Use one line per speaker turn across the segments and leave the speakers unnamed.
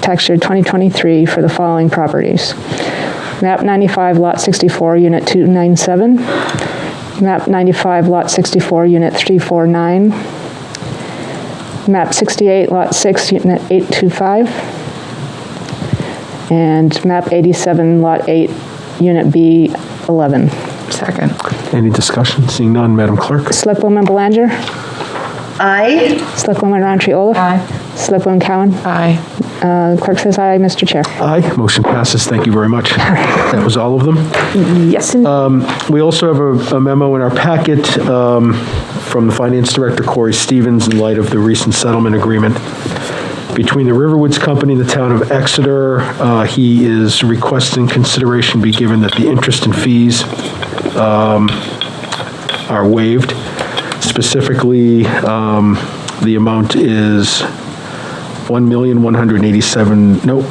Texture 2023 for the following properties. MAP 95, Lot 64, Unit 297. MAP 95, Lot 64, Unit 349. MAP 68, Lot 6, Unit 825. And MAP 87, Lot 8, Unit B11.
Second.
Any discussion? Seeing none, Madam Clerk?
Selectwoman Belanger?
Aye.
Selectwoman Roundtree Olaf?
Aye.
Selectwoman Cowan?
Aye.
Uh, Clerk says aye, Mr. Chair.
Aye, motion passes. Thank you very much. That was all of them.
Yes, and
We also have a- a memo in our packet um, from the Finance Director Corey Stevens in light of the recent settlement agreement between the Riverwoods Company and the town of Exeter. Uh, He is requesting consideration be given that the interest and fees um, are waived. Specifically, um, the amount is 1,187, nope,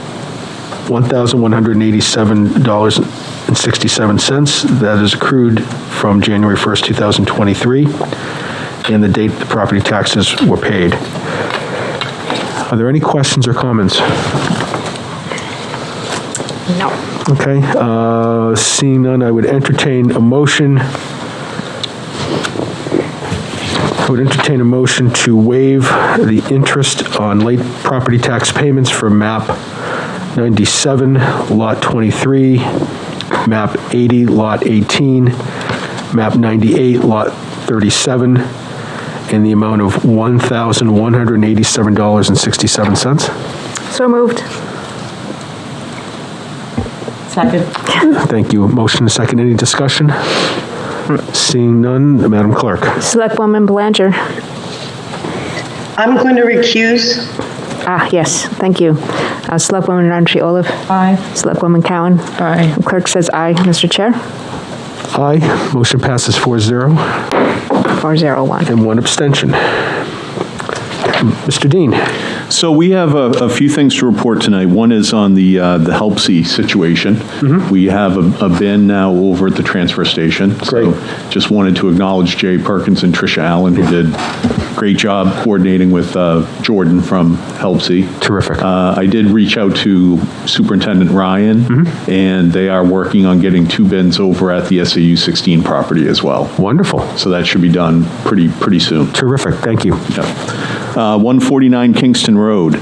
$1,187.67. That is accrued from January 1st, 2023, and the date the property taxes were paid. Are there any questions or comments?
no.
Okay, uh, seeing none, I would entertain a motion. I would entertain a motion to waive the interest on late property tax payments for map 97, lot 23, map 80, lot 18, map 98, lot 37, in the amount of $1,187.67.
So moved. Second.
Thank you. Motion and second. Any discussion? Seeing none, Madam Clerk.
Selectwoman Belanger.
I'm going to recuse.
Ah, yes, thank you. Uh, Selectwoman Roundtree Olaf.
Aye.
Selectwoman Cowan.
Aye.
Clerk says aye, Mr. Chair.
Aye. Motion passes 4-0
401.
and one abstention. Mr. Dean,
So we have a, a few things to report tonight. One is on the, uh, the Helpsy situation. We have a, a bin now over at the transfer station.
Mm-hmm. Great.
So just wanted to acknowledge Jay Perkins and Tricia Allen, who did a great job coordinating with, uh, Jordan from Helpsy.
Terrific.
Uh, I did reach out to Superintendent Ryan,
Mm-hmm.
and they are working on getting two bins over at the SAU 16 property as well.
wonderful.
So that should be done pretty, pretty soon.
Terrific. Thank you.
Yep. Uh, 149 Kingston Road.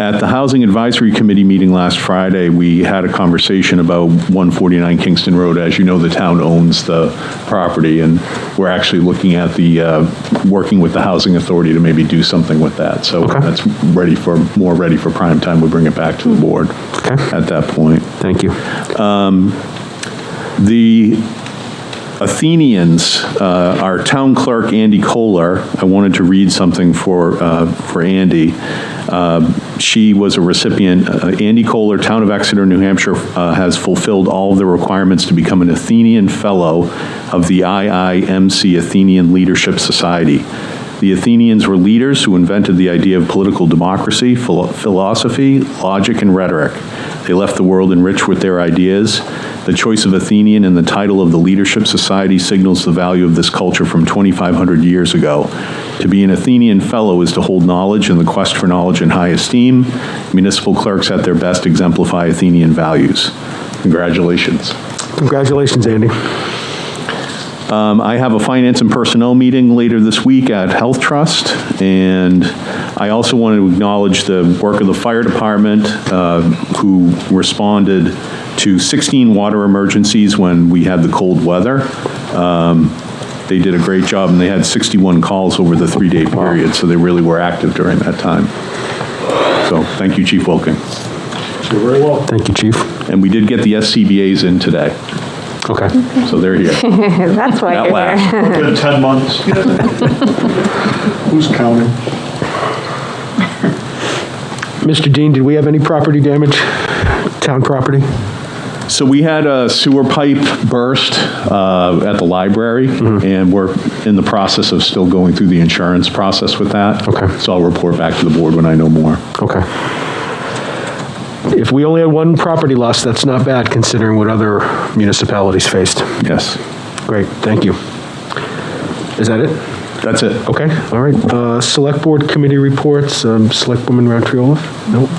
At the Housing Advisory Committee meeting last Friday, we had a conversation about 149 Kingston Road. As you know, the town owns the property, and we're actually looking at the, uh, working with the Housing Authority to maybe do something with that. So
Okay.
that's ready for, more ready for prime time, we bring it back to the board
Okay.
at that point.
Thank you.
The Athenians, uh, our town clerk, Andy Kohler, I wanted to read something for, uh, for Andy. Um, She was a recipient, uh, Andy Kohler, Town of Exeter, New Hampshire, uh, has fulfilled all of the requirements to become an Athenian Fellow of the IIMC Athenian Leadership Society. The Athenians were leaders who invented the idea of political democracy, philo- philosophy, logic, and rhetoric. They left the world enriched with their ideas. The choice of Athenian and the title of the Leadership Society signals the value of this culture from 2,500 years ago. To be an Athenian Fellow is to hold knowledge and the quest for knowledge in high esteem. Municipal clerks at their best exemplify Athenian values. Congratulations.
Congratulations, Andy.
Um, I have a finance and personnel meeting later this week at Health Trust, and I also want to acknowledge the work of the fire department, uh, who responded to 16 water emergencies when we had the cold weather. Um, They did a great job, and they had 61 calls over the three-day period, so they really were active during that time. So, thank you, Chief Wilking.
Thank you, Chief.
And we did get the SCBA's in today,
Okay.
so they're here.
That's why
That laugh.
Been 10 months. Who's counting?
Mr. Dean, did we have any property damage? Town property?
So we had a sewer pipe burst uh, at the library, and we're in the process of still going through the insurance process with that.
Okay.
So I'll report back to the board when I know more.
Okay. If we only had one property loss, that's not bad considering what other municipalities faced.
Yes,
Great, thank you. Is that it?
that's it.
Okay, all right. Uh, Select Board Committee reports, um, Selectwoman Roundtree Olaf? Nope.